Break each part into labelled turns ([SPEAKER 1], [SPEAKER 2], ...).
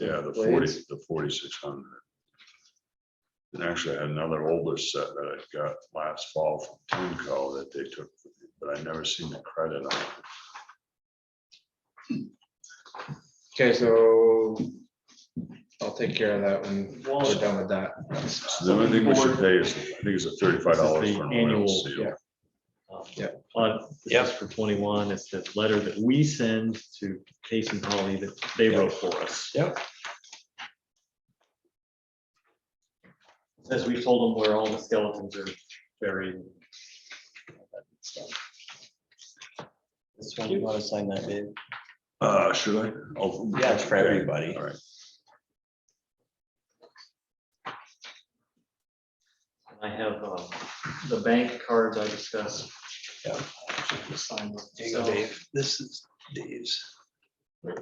[SPEAKER 1] Yeah, the forty,
[SPEAKER 2] blades.
[SPEAKER 1] the forty-six hundred. And actually, I had another older set that I got last fall from Timco that they took, but I never seen the credit on it.
[SPEAKER 2] Okay, so I'll take care of that when we're done with that.
[SPEAKER 1] So the only thing we should pay is, I think it's a thirty-five dollars for an oil
[SPEAKER 3] Annual,
[SPEAKER 1] seal.
[SPEAKER 2] yeah.
[SPEAKER 3] Um,
[SPEAKER 2] Yeah.
[SPEAKER 3] On, this is for twenty-one, it's the letter that we send to Casey and Holly that they
[SPEAKER 2] Yeah.
[SPEAKER 3] wrote for us.
[SPEAKER 2] Yep.
[SPEAKER 3] As we told them where all the skeletons are buried. and all that good stuff.
[SPEAKER 4] This one, you wanna sign that, Dave?
[SPEAKER 1] Uh, should I? Oh,
[SPEAKER 4] Yeah, it's for
[SPEAKER 1] okay.
[SPEAKER 4] everybody.
[SPEAKER 1] All right.
[SPEAKER 3] I have um, the bank cards I discussed.
[SPEAKER 4] Yeah.
[SPEAKER 3] Just sign them.
[SPEAKER 4] There you go,
[SPEAKER 3] So-
[SPEAKER 4] Dave. This is Dave's.
[SPEAKER 1] You're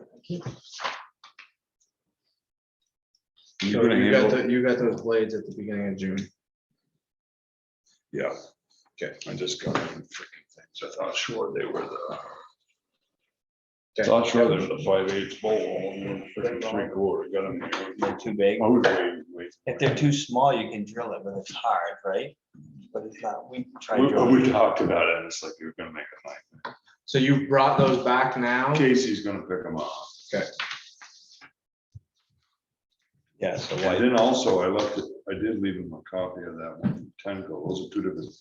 [SPEAKER 2] So
[SPEAKER 1] gonna
[SPEAKER 2] You got,
[SPEAKER 1] handle,
[SPEAKER 2] the- you got those blades at the beginning of June.
[SPEAKER 1] yeah. Okay. I just got them freaking things. I thought sure they were the.
[SPEAKER 2] Okay.
[SPEAKER 1] Thought sure they were the five eighths bowl, one freaking three quarter, got them. here.
[SPEAKER 4] Too big.
[SPEAKER 1] Oh, wait, wait.
[SPEAKER 4] If they're too small, you can drill it, but it's hard, right? But it's not, we tried
[SPEAKER 1] We,
[SPEAKER 4] drilling.
[SPEAKER 1] we talked about it, and it's like, you're gonna make a night.
[SPEAKER 2] So you brought those back now?
[SPEAKER 1] Casey's gonna pick them up.
[SPEAKER 4] Yeah, so
[SPEAKER 1] And
[SPEAKER 4] why,
[SPEAKER 1] then also, I left, it- I did leave him a copy of that one, Tenco, those are two different,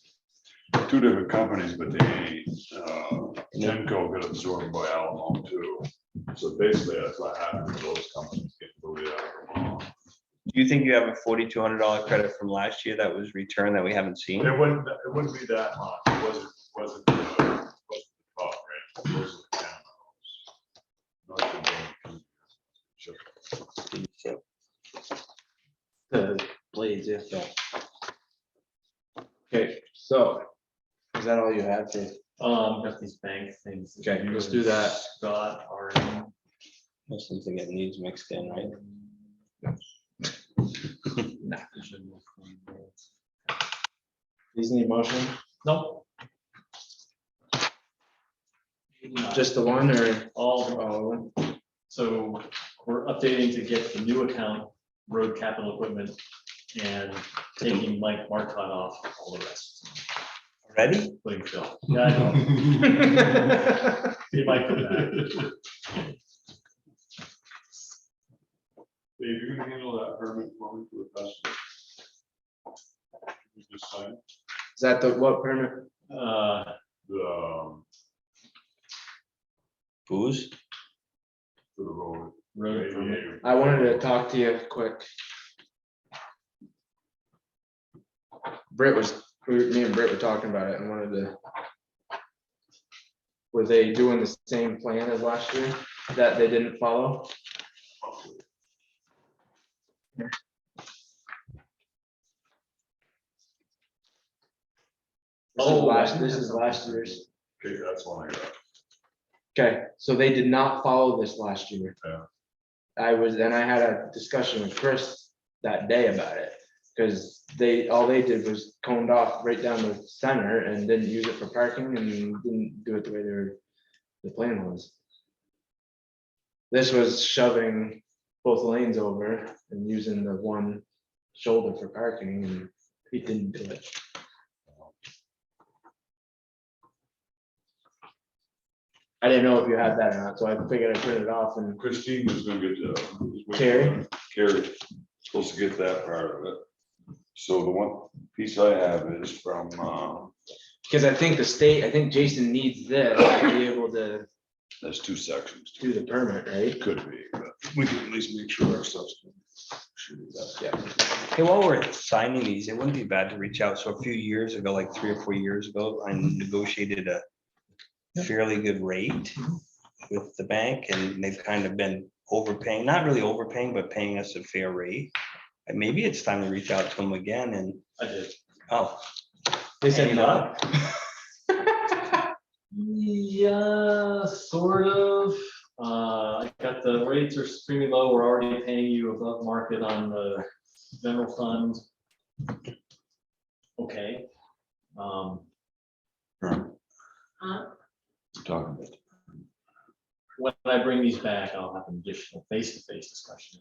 [SPEAKER 1] two different companies, but they, uh, Tenco got absorbed by Alamo too. So basically, that's what happened to those companies getting booted out of Alamo.
[SPEAKER 4] do you think you have a forty-two hundred dollar credit from last year that was returned that we haven't seen?
[SPEAKER 1] It wouldn't, it wouldn't be that much, it wasn't, wasn't, the- wasn't the top rate, it was the town house. Not the one. Sure.
[SPEAKER 3] The blades, yeah.
[SPEAKER 2] Okay, so is that all you had for?
[SPEAKER 3] Um, got these bank things. that
[SPEAKER 2] Okay,
[SPEAKER 3] you
[SPEAKER 2] let's
[SPEAKER 3] and
[SPEAKER 2] do that.
[SPEAKER 3] Scott are in.
[SPEAKER 4] That's something that needs mixed in, right?
[SPEAKER 2] These need motion?
[SPEAKER 3] Nope. Just
[SPEAKER 2] Just the one or?
[SPEAKER 3] all,
[SPEAKER 2] all of them?
[SPEAKER 3] so we're updating to get the new account, road capital equipment, and taking Mike Marcot off all the rest.
[SPEAKER 4] Ready?
[SPEAKER 3] Putting Phil. Yeah, I know. He might come back.
[SPEAKER 1] Dave, you're gonna handle that permit for me for the festival? You Just sign
[SPEAKER 2] Is that the what permit?
[SPEAKER 3] Uh,
[SPEAKER 1] the, um,
[SPEAKER 4] Booze?
[SPEAKER 1] for the road.
[SPEAKER 3] road permit.
[SPEAKER 1] aviator.
[SPEAKER 2] I wanted to talk to you quick. Britt was, we- me and Britt were talking about it and wanted to. Were they doing the same plan as last year that they didn't follow? This is
[SPEAKER 3] Oh,
[SPEAKER 2] last, this is last year's.
[SPEAKER 1] Okay, that's one I got.
[SPEAKER 2] Okay, so they did not follow this last year.
[SPEAKER 1] Yeah.
[SPEAKER 2] I was, and I had a discussion with Chris that day about it, because they, all they did was coned off right down the center and didn't use it for parking and didn't do it the way they were, the plan was. This was shoving both lanes over and using the one shoulder for parking and he didn't do it. I didn't know if you had that or not, so I figured I printed it off and
[SPEAKER 1] Christine was gonna get the.
[SPEAKER 2] Carrie?
[SPEAKER 1] Carrie, supposed to get that part of it. So the one piece I have is from, uh,
[SPEAKER 2] Because I think the state, I think Jason needs this to be able to
[SPEAKER 1] there's two sections.
[SPEAKER 2] do the permit, right?
[SPEAKER 1] It could be, but we can at least make sure our stuff's. should be that.
[SPEAKER 4] Hey, while we're signing these, it wouldn't be bad to reach out. So a few years ago, like three or four years ago, I negotiated a fairly good rate with the bank and they've kind of been overpaying, not really overpaying, but paying us a fair rate. And maybe it's time to reach out to them again and,
[SPEAKER 3] I did.
[SPEAKER 4] oh,
[SPEAKER 2] They
[SPEAKER 4] said no.
[SPEAKER 3] Yeah, sort of. Uh, I got the rates are extremely low. We're already paying you above market on the general fund. Okay. Um,
[SPEAKER 1] Talking about.
[SPEAKER 3] when I bring these back, I'll have an additional face-to-face discussion.